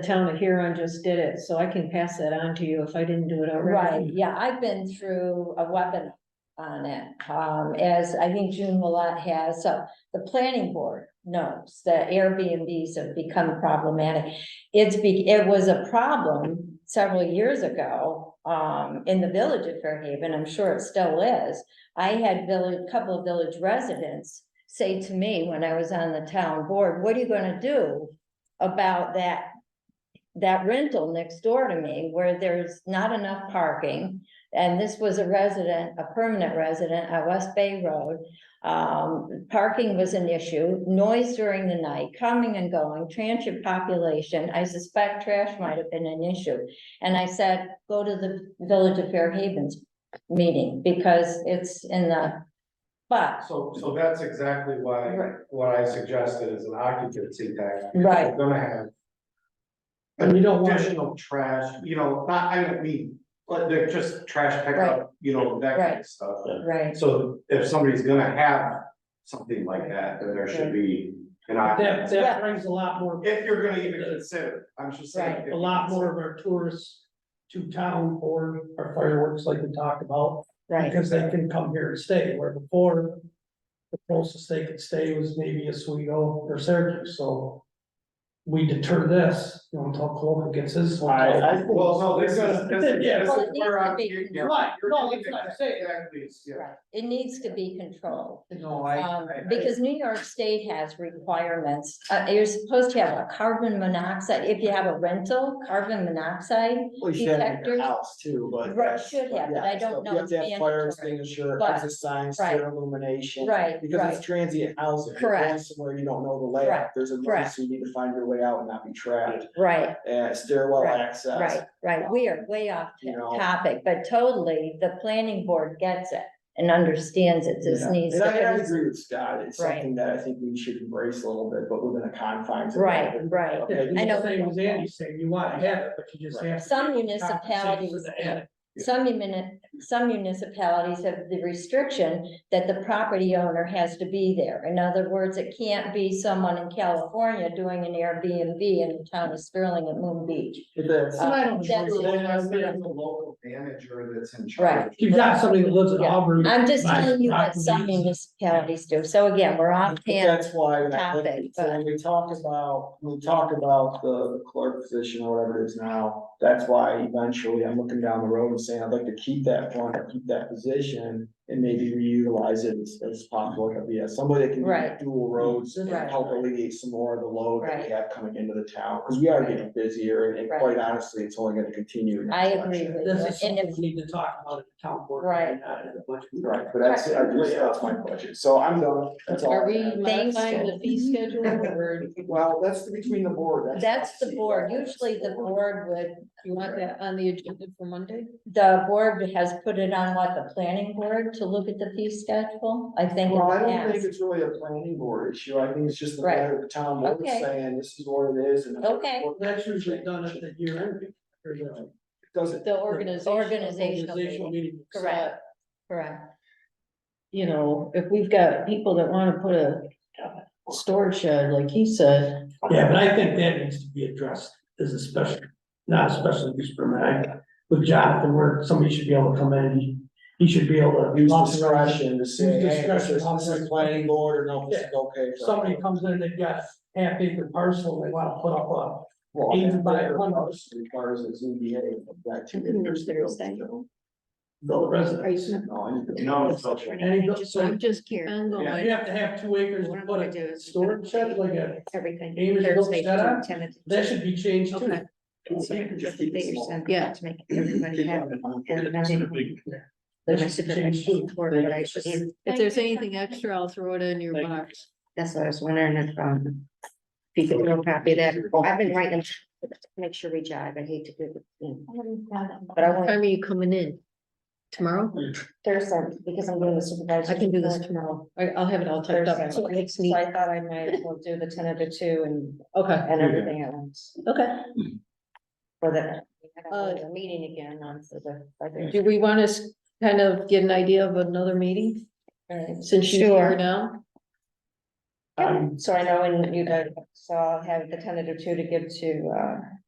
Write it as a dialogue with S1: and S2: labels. S1: The town of Huron just did it, so I can pass that on to you if I didn't do it
S2: Right,
S1: already.
S2: yeah, I've been through a webinar on it, um, as I think June Willett has, so the planning board knows that Airbnbs have become problematic. It's be, it was a problem several years ago, um, in the village of Fairhaven, I'm sure it still is. I had village, couple of village residents say to me when I was on the town board, what are you gonna do about that that rental next door to me where there's not enough parking. And this was a resident, a permanent resident at West Bay Road. Um, parking was an issue, noise during the night, coming and going, transient population. I suspect trash might have been an issue. And I said, go to the Village of Fair Havens meeting because it's in the, but,
S3: So, so that's exactly why,
S2: Right.
S3: what I suggested is an occupancy tax.
S2: right,
S3: We're gonna have
S1: And you don't want,
S3: additional trash, you know, not, I don't mean, but they're just trash
S2: Right.
S3: pickup, you know, that kind of stuff.
S2: right.
S3: So if somebody's gonna have something like that, then there should be an
S4: That,
S3: occupancy.
S4: that brings a lot more,
S3: If you're gonna even consider, it, I'm just saying.
S2: Right.
S3: if you
S4: a lot
S3: consider
S4: more of our tourists to town for our fireworks like we talked about.
S2: Right,
S4: Because they can come here and stay, where before the closest they could stay was maybe Oswego or Syracuse, so. We deter this, you know, until Cologne gets his. one.
S3: I- I think- Well, no, this is- this is-
S4: Yeah,
S2: Well, it
S3: where
S2: needs to
S3: I'm-
S2: be
S3: you're-
S2: controlled.
S4: Right, no, that's what I'm saying.
S3: Exactly, it's- yeah.
S2: Right. It needs to be controlled.
S4: No, I.
S2: Um, because New York State has requirements, uh, you're supposed to have a carbon monoxide, if you have a rental, carbon monoxide.
S5: Well, you should have it in
S2: detectors.
S5: your house too, but.
S2: Right, should have, but I
S5: Yeah,
S2: don't
S5: so
S2: know
S5: You have to
S2: it's
S5: have fire
S2: mandatory.
S5: extinguisher,
S2: But-
S5: exit signs,
S2: right.
S5: clear illumination.
S2: Right,
S5: Because
S2: right,
S5: it's transient housing. You're
S2: Correct.
S5: going Somewhere you don't know the layout,
S2: Correct,
S5: there's a
S2: correct.
S5: emergency, you need to find your way out and not be trapped,
S2: right,
S5: and stairwell
S2: Right,
S5: access,
S2: right, right, we are way off
S5: you know.
S2: topic, but totally, the planning board gets it and understands it, this
S5: Yeah.
S2: needs
S5: And I, and I
S2: to
S5: agree with Scott, it's
S2: Right.
S5: something that I think we should embrace a little bit, but within a confines.
S2: be.
S5: of
S2: Right,
S5: that.
S2: right,
S4: Yeah,
S5: Okay,
S2: I know.
S4: the same as Andy saying, you wanna have it, but you just have. to
S2: some
S4: compensate for
S2: municipalities.
S4: the added
S2: Some muni- some municipalities have the restriction that the property owner has to be there. In other words, it can't be someone in California doing an Airbnb in the town of Sterling at Moon Beach.
S5: If that's-
S2: Uh, that's-
S3: Well, that's the local manager that's in
S2: Right.
S3: charge.
S4: You've got somebody that lives in
S2: Yeah.
S4: Auburn.
S2: I'm just
S4: buys
S2: telling you what some
S4: properties.
S2: municipalities do. So again, we're off
S5: But
S2: tangent.
S5: That's why when I look at,
S2: topic,
S5: so when we talk about, when we talk about the clerk position or whatever it is now, that's why eventually I'm looking down the road and saying, I'd like to keep that one, or keep that position. And maybe reutilize it as, as possible, like, yeah, somebody that can
S2: Right.
S5: do dual roads and
S2: Right.
S5: help alleviate some more of the load that we have coming into the town. Cause we are getting busier and
S2: Right.
S5: quite honestly, it's only gonna continue. in that
S2: I agree
S5: direction.
S2: with you.
S4: This is
S2: And
S4: something
S2: if,
S4: we need to talk about at the town board.
S2: Right.
S4: not in the budget.
S5: Right, but that's, I just, that's my budget, so I'm done, that's all. I
S1: are we
S5: have.
S2: Thanks,
S1: modifying the fee schedule or
S5: Well, that's between the board.
S2: that's the board. Usually the board would,
S1: you want that on the agenda for Monday?
S2: the board has put it on what, the planning board to look at the fee schedule? I think. in
S5: Well,
S2: the
S5: I don't
S2: past.
S5: think it's really a planning board issue, I think it's just the
S2: Right.
S5: matter of the town board
S2: Okay.
S5: saying, this is what it is and.
S2: Okay.
S5: Well,
S4: That's usually done at the year end. or the
S5: Doesn't,
S1: The organizational.
S2: Organizational
S4: Organizational
S2: meeting.
S4: meeting.
S2: Correct, correct.
S1: You know, if we've got people that wanna put a storage shed, like he said,
S4: Yeah, but I think that needs to be addressed as a special, not a special use permit. I- With Jonathan, where somebody should be able to come in, he- he should be able to.
S5: use discretion to say,
S4: Use
S5: hey, this
S4: discretion,
S5: is, this is
S4: operate.
S5: planning board or no, this is okay.
S4: If
S5: for-
S4: Somebody comes in, they've got half acre parcel, they wanna put up a
S5: Well,
S4: Even
S5: that
S4: by
S5: matter
S4: one-
S5: Requires a ZBA. that too.
S6: There's Thursday.
S4: the residence.
S5: No, I need to-
S3: No, it's not-
S4: And he
S6: I'm
S4: don't-
S6: just-
S4: so-
S6: I'm just curious.
S1: ongoing,
S4: You have to have two acres
S6: What
S4: to
S6: I'm
S4: put
S6: gonna do
S4: a
S6: is.
S4: storage shed like a,
S6: Everything.
S4: Amy's little
S6: Thursday
S4: shed
S6: through
S4: up.
S6: 10th.
S4: that should be changed too.
S6: Okay. So I can just
S5: Keep it
S6: figure
S5: small.
S6: something
S1: Yeah.
S6: To make everybody happy. And I didn't-
S4: That
S6: when I
S4: should
S6: submit my
S4: change too.
S6: report, but I didn't-
S1: If there's anything extra, I'll throw it in your
S4: Thank you.
S1: box.
S6: That's what I was wondering if, um, if you could real copy of that. I've been writing them, to make sure we jive. I hate to do it. you know. But I
S1: What
S6: want
S1: Time are you coming in? Tomorrow?
S6: Thursday because I'm doing the supervisor.
S1: I can do this
S6: report
S1: tomorrow. I, I'll have it all typed up.
S6: Thursday. So I thought I might as well do the ten of the two and,
S1: Okay,
S6: and everything at once
S1: okay.
S6: for that.
S1: Uh,
S6: the meeting again on the. budget.
S1: Do we want to kind of get an idea of another meeting since you're
S6: Sure.
S1: here now?
S6: So I know when you guys, so I'll have the tentative two to give to, uh,